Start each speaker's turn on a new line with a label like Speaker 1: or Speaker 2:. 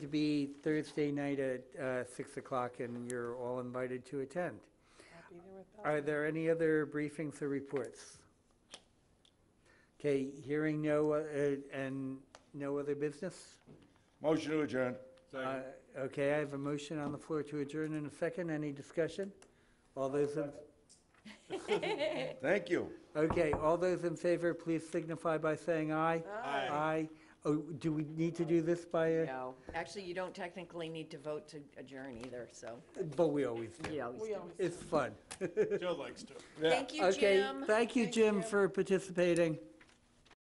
Speaker 1: to be Thursday night at uh, 6 o'clock, and you're all invited to attend. Are there any other briefings or reports? Okay, hearing no, uh, and no other business?
Speaker 2: Motion to adjourn.
Speaker 1: Uh, Okay, I have a motion on the floor to adjourn in a second. Any discussion? All those, in-
Speaker 2: Thank you.
Speaker 1: okay, all those in favor, please signify by saying aye.
Speaker 3: Aye.
Speaker 1: Aye. Oh, do we need to do this by, a-
Speaker 4: No, actually, you don't technically need to vote to adjourn either, so
Speaker 1: but we always do.
Speaker 4: you always
Speaker 3: We
Speaker 4: do.
Speaker 3: always
Speaker 1: It's fun.
Speaker 5: Joe likes to.
Speaker 2: Yeah.
Speaker 4: Thank you,
Speaker 1: Okay,
Speaker 4: Jim.
Speaker 1: Thank you, Jim, for participating.